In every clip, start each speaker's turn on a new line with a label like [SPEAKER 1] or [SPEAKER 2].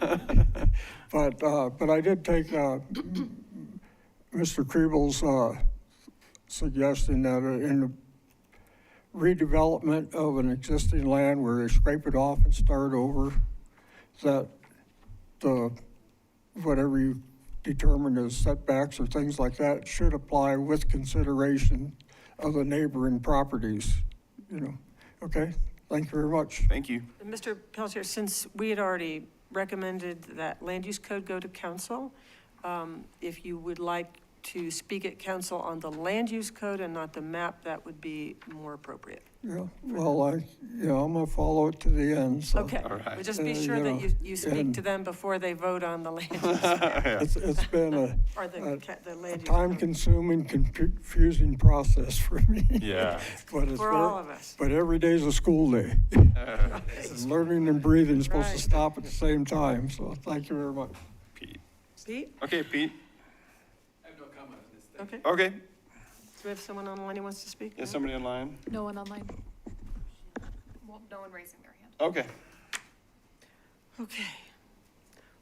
[SPEAKER 1] But, uh, but I did take, uh, Mr. Kriebel's, uh, suggestion that uh, in the redevelopment of an existing land where they scrape it off and start over, that the, whatever you determine as setbacks or things like that should apply with consideration of the neighboring properties, you know? Okay, thank you very much.
[SPEAKER 2] Thank you.
[SPEAKER 3] Mr. Pelletier, since we had already recommended that land use code go to council, um, if you would like to speak at council on the land use code and not the map, that would be more appropriate.
[SPEAKER 1] Yeah, well, I, yeah, I'm gonna follow it to the end, so.
[SPEAKER 3] Okay,
[SPEAKER 2] All right.
[SPEAKER 3] but just be
[SPEAKER 1] Uh,
[SPEAKER 3] sure that
[SPEAKER 1] yeah,
[SPEAKER 3] you, you speak
[SPEAKER 1] and-
[SPEAKER 3] to them before they vote on the land, use-
[SPEAKER 1] It's, it's been a,
[SPEAKER 3] or the,
[SPEAKER 1] Uh,
[SPEAKER 3] ca-
[SPEAKER 1] a
[SPEAKER 3] the land use. code.
[SPEAKER 1] time-consuming, confusing process for me.
[SPEAKER 2] Yeah.
[SPEAKER 1] But it's,
[SPEAKER 3] For all
[SPEAKER 1] ver-
[SPEAKER 3] of us.
[SPEAKER 1] but every day's a school day. And Learning and breathing is supposed to
[SPEAKER 3] Right.
[SPEAKER 1] stop at the same time, so thank you very much.
[SPEAKER 2] Pete.
[SPEAKER 3] Pete,
[SPEAKER 2] Okay, Pete.
[SPEAKER 3] okay, do
[SPEAKER 2] Okay.
[SPEAKER 3] we have someone online who wants to speak?
[SPEAKER 2] Is
[SPEAKER 3] No?
[SPEAKER 2] somebody online?
[SPEAKER 4] No one online.
[SPEAKER 5] Well, no one raising their hand.
[SPEAKER 2] Okay.
[SPEAKER 3] Okay.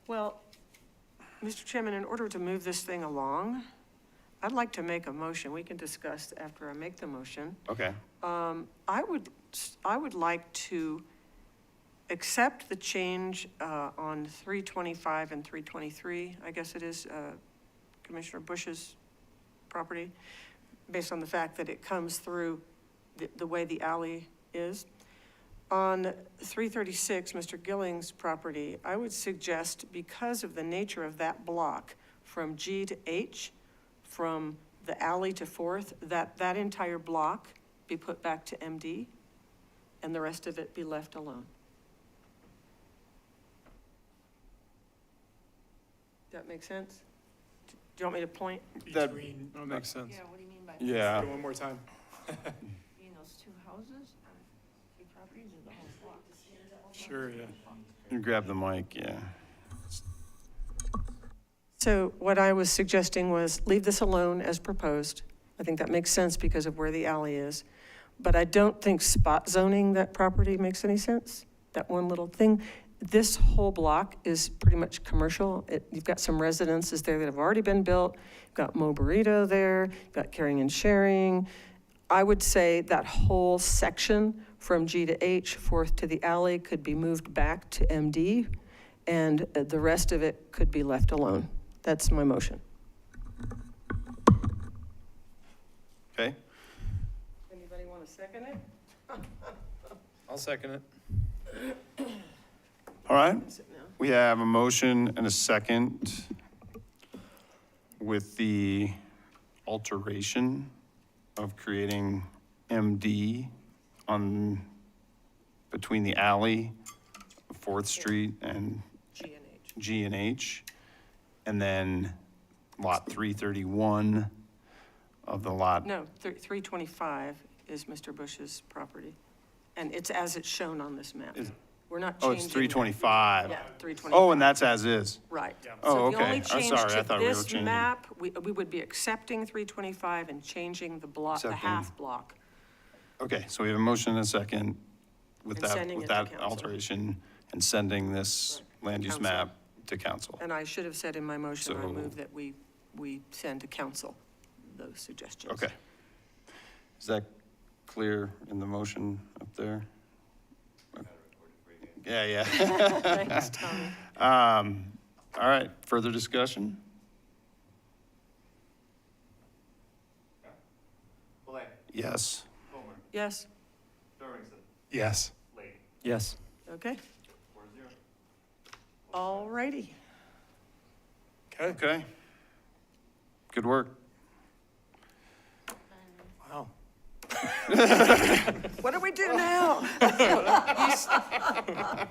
[SPEAKER 3] Well, Mr. Chairman, in order to move this thing along, I'd like to make a motion. We can discuss after I make the motion.
[SPEAKER 2] Okay.
[SPEAKER 3] Um, I would, I would like to accept the change uh, on 325 and 323, I guess it is uh, Commissioner Bush's property, based on the fact that it comes through the- the way the alley is. On 336, Mr. Gilling's property, I would suggest, because of the nature of that block, from G to H, from the alley to Fourth, that that entire block be put back to MD, and the rest of it be left alone. That make sense? Do you want me to point?
[SPEAKER 2] That-
[SPEAKER 6] Between. That makes sense.
[SPEAKER 5] what do you mean by?
[SPEAKER 2] Yeah.
[SPEAKER 6] One more time.
[SPEAKER 5] Between those two houses, uh, two properties or the whole block?
[SPEAKER 6] Sure, yeah.
[SPEAKER 2] You grab the mic. Yeah.
[SPEAKER 3] So what I was suggesting was leave this alone as proposed. I think that makes sense because of where the alley is. But I don't think spot zoning that property makes any sense, that one little thing. This whole block is pretty much commercial. It- You've got some residences there that have already been built. You've got Mo Burrito there, you've got Caring and Sharing. I would say that whole section from G to H, Fourth to the alley, could be moved back to MD, and uh, the rest of it could be left alone. That's my motion.
[SPEAKER 2] Okay.
[SPEAKER 3] Anybody want to second it?
[SPEAKER 6] I'll second it.
[SPEAKER 2] All right.
[SPEAKER 3] Is it now?
[SPEAKER 2] We have a motion and a second with the alteration of creating MD on, between the alley, Fourth Street and
[SPEAKER 3] G and H.
[SPEAKER 2] G and H. And then lot 331 of the lot.
[SPEAKER 3] No, thir- 325 is Mr. Bush's property, and it's as it's shown on this map.
[SPEAKER 2] Is-
[SPEAKER 3] We're not
[SPEAKER 2] Oh,
[SPEAKER 3] changing.
[SPEAKER 2] it's
[SPEAKER 3] that.
[SPEAKER 2] 325.
[SPEAKER 3] Yeah, 325.
[SPEAKER 2] Oh, and that's as is.
[SPEAKER 3] Right.
[SPEAKER 2] Oh,
[SPEAKER 3] So the only
[SPEAKER 2] okay. I'm
[SPEAKER 3] change
[SPEAKER 2] sorry. I
[SPEAKER 3] to
[SPEAKER 2] thought we were
[SPEAKER 3] this
[SPEAKER 2] changing.
[SPEAKER 3] map, we, we would be accepting 325 and changing the block, the
[SPEAKER 2] Accepting.
[SPEAKER 3] half block.
[SPEAKER 2] Okay, so we have a motion and a second with
[SPEAKER 3] And
[SPEAKER 2] that,
[SPEAKER 3] sending
[SPEAKER 2] with
[SPEAKER 3] it to
[SPEAKER 2] that
[SPEAKER 3] council.
[SPEAKER 2] alteration and sending this land use
[SPEAKER 3] Council.
[SPEAKER 2] map to council.
[SPEAKER 3] And I should have said in my motion, I
[SPEAKER 2] So-
[SPEAKER 3] move that we, we send to council those suggestions.
[SPEAKER 2] Okay. Is that clear in the motion up there? Yeah, yeah.
[SPEAKER 3] Thanks, Tommy.
[SPEAKER 2] Um, All right, further discussion? Yes.
[SPEAKER 3] Yes,
[SPEAKER 6] Yes.
[SPEAKER 2] Yes.
[SPEAKER 3] okay. All righty.
[SPEAKER 6] Okay,
[SPEAKER 2] Okay. Good work.
[SPEAKER 6] wow.
[SPEAKER 3] What do we do now?
[SPEAKER 5] I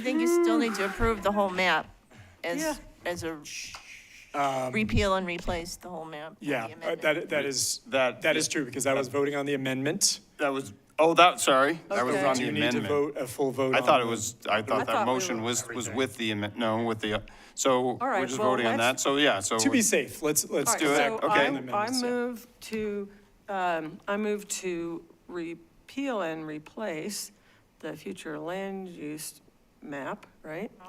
[SPEAKER 5] think you still need to approve the whole map
[SPEAKER 3] Yeah.
[SPEAKER 5] as, as a repeal and replace the whole map. of the
[SPEAKER 6] Um, Yeah, uh,
[SPEAKER 5] amendment.
[SPEAKER 6] that, that is,
[SPEAKER 2] That-
[SPEAKER 6] that is true, because I was voting on the amendment.
[SPEAKER 2] That was, oh, that, sorry, that was
[SPEAKER 3] Okay.
[SPEAKER 2] on
[SPEAKER 6] Do
[SPEAKER 2] the
[SPEAKER 6] you need to
[SPEAKER 2] amendment.
[SPEAKER 6] vote a full vote
[SPEAKER 2] I thought it
[SPEAKER 6] on the-
[SPEAKER 2] was, I thought that
[SPEAKER 3] thought we
[SPEAKER 2] motion
[SPEAKER 3] were-
[SPEAKER 2] was, was with the, amendment. no, with the, so we're
[SPEAKER 3] right,
[SPEAKER 2] just
[SPEAKER 3] well,
[SPEAKER 2] voting on that,
[SPEAKER 3] let's-
[SPEAKER 2] so yeah, so.
[SPEAKER 6] To be safe, let's, let's
[SPEAKER 3] All
[SPEAKER 6] do
[SPEAKER 3] right,
[SPEAKER 6] it.
[SPEAKER 2] Okay.
[SPEAKER 3] so I- I
[SPEAKER 6] Amendments, yeah.
[SPEAKER 3] move to, um, I move to repeal and replace the future land use map, right?